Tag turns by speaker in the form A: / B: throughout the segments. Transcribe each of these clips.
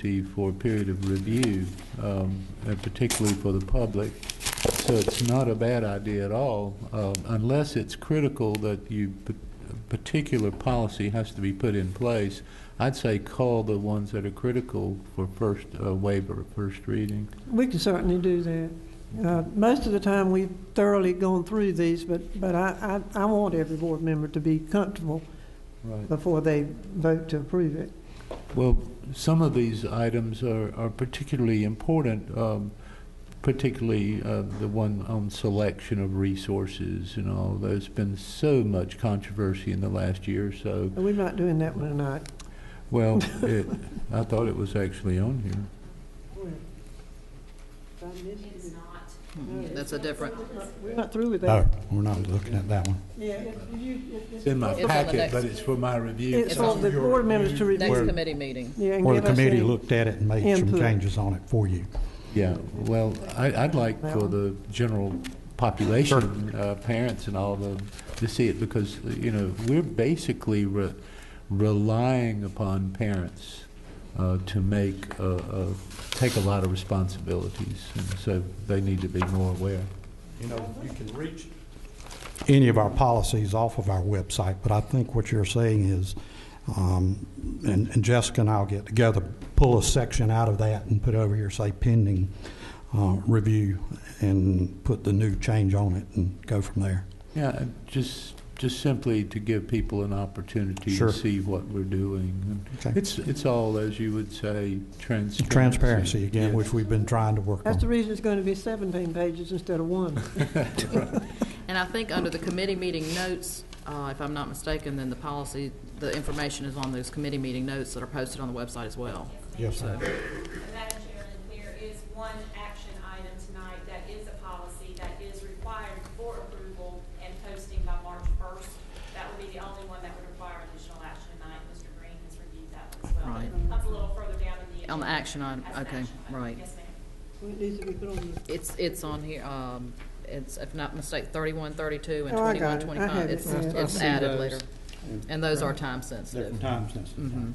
A: to you for a period of review, um, and particularly for the public. So it's not a bad idea at all, um, unless it's critical that you, p- a particular policy has to be put in place. I'd say call the ones that are critical for first uh, waiver, first reading.
B: We can certainly do that. Uh, Most of the time, we've thoroughly gone through these, but, but I, I, I want every board member to be comfortable
A: Right.
B: before they vote to approve it.
A: Well, some of these items are, are particularly important, um, particularly uh, the one on selection of resources and all. There's been so much controversy in the last year or so.
B: But we're not doing that one tonight.
A: Well, it, I thought it was actually on here.
C: Mm-hmm. That's a different,
B: We're not through with
D: No,
B: that.
D: we're not looking at that one.
B: Yeah, if you- if-
A: It's in my
C: It's on the
A: packet,
C: next-
A: but it's for my review.
B: It's for the board members to
C: next
B: review.
C: committee meeting.
B: Yeah, and
D: Or the
B: give us any-
D: committee looked at it and made some
B: input.
D: changes on it for you.
A: Yeah, well, I, I'd like
B: That
A: for
B: one?
A: the general population, uh, parents and all the, to see it because, you know, we're basically re- relying upon parents, uh, to make, uh, uh, take a lot of responsibilities. And so they need to be more aware.
D: You know, you can reach. Any of our policies off of our website, but I think what you're saying is, um, and and Jessica and I'll get together, pull a section out of that and put over here, say pending uh, review, and put the new change on it and go from there.
A: Yeah, and just, just simply to give people an opportunity to
D: Sure.
A: see what we're doing. And
D: Okay.
A: It's, it's all, as you would say, transparency.
D: Transparency again,
A: Yeah.
D: which we've been trying to work on.
B: That's the reason it's going to be 17 pages instead of one.
C: And I think under the committee meeting notes, uh, if I'm not mistaken, then the policy, the information is on those committee meeting notes that are posted on the website as well.
D: Yes, sir.
E: Madam Chairman, there is one action item tonight that is a policy that is required for approval and posting by March first. That would be the only one that would require additional action tonight. Mr. Green has reviewed that one as well.
C: Right.
E: It Comes a little further down in the.
C: On the
E: agenda
C: action item,
E: as an
C: okay,
E: action item.
C: right.
E: Yes, ma'am.
B: It needs to be put on the-
C: It's, it's on here, um, it's, if not mistake, thirty-one, thirty-two, and
B: Oh, I got
C: twenty-one,
B: it. I
C: twenty-five.
B: have it,
C: It's,
B: yeah.
C: it's
F: I see
C: added
F: those.
C: later. And those are time sensitive.
B: Mm-hmm.
C: Mhm.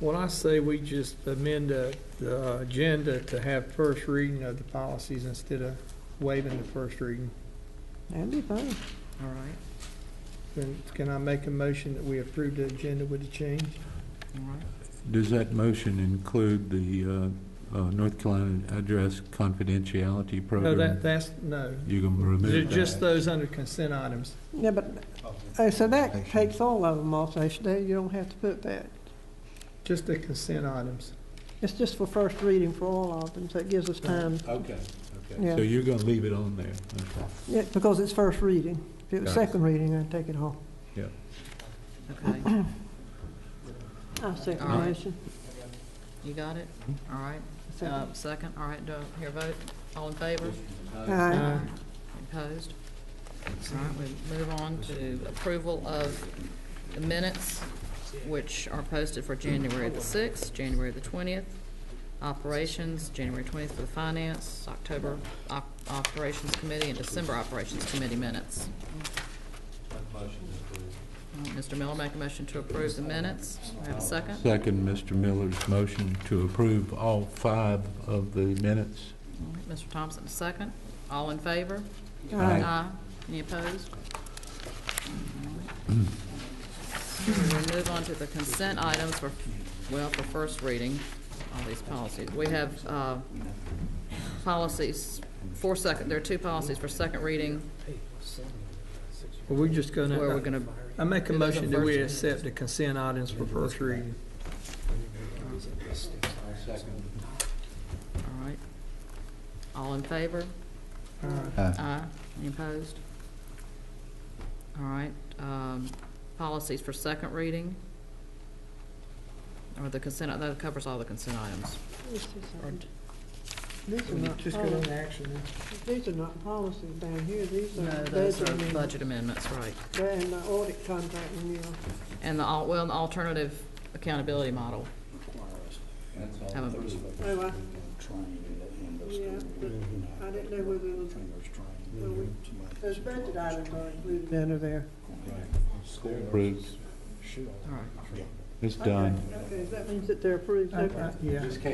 F: Well, I say we just amend the, the agenda to have first reading of the policies instead of waiving the first reading.
B: That'd be fine.
C: Mm-hmm. All right,
F: Then can I make a motion that we approve the agenda with the change?
C: all right.
A: Does that motion include the uh, uh, North Carolina Address Confidentiality
F: No,
A: Program?
F: that, that's, no.
A: You're going to
F: Ju-
A: remove that?
F: Just those under consent items.
B: Yeah, but, uh, so that takes all of them off, they should, they- you don't have to put that.
F: Just the consent items.
B: It's just for first reading for all of them, so it gives us time,
A: Okay,
B: Yeah.
A: okay. So you're going to leave it on there? Okay.
B: Yeah, because it's first reading. If it was
A: Got it.
B: second reading, I'd take it off.
C: Okay,
B: I'll second
C: All
B: the
C: right.
B: motion.
C: you got it? All right,
B: Second.
C: uh, second, all right, do I hear a vote? All in favor?
B: Aye.
C: Opposed? All right, we move on to approval of the minutes, which are posted for January the sixth, January the twentieth, operations, January twentieth for the finance, October op- operations committee, and December operations committee minutes. All right, Mr. Miller, make a motion to approve the minutes. Do I Have a second?
A: Second, Mr. Miller's motion to approve all five of the minutes.
C: All right, Mr. Thompson, a second. All in favor?
A: Aye.
C: Any opposed? All right. We'll move on to the consent items for, well, for first reading, all these policies. We have uh, policies for second, there are two policies for second reading
F: Well, we're just gonna.
C: where we're going to,
F: I make a
C: Do those on
F: motion that we
C: first.
F: accept the consent items for first reading.
C: all right. All in favor? Aye. Any opposed? All right, um, policies for second reading. Or the consent, that covers all the consent items.
B: This is
C: Or-
B: something- These are not,
F: Just go
B: poli-
F: into action.
B: these are not policies down here, these
C: No,
B: are
C: those are
B: budget
C: budget amendments, right.
B: and the audit contract uh, renewal.
C: And the, al- well, the alternative accountability model. Haven't-
B: Oh, I, yeah, but I didn't know whether it was, well, we- those budget items are included under there.
A: Approved.
C: All right.
A: It's done.
B: Okay, that means that they're approved, okay.
F: Yeah.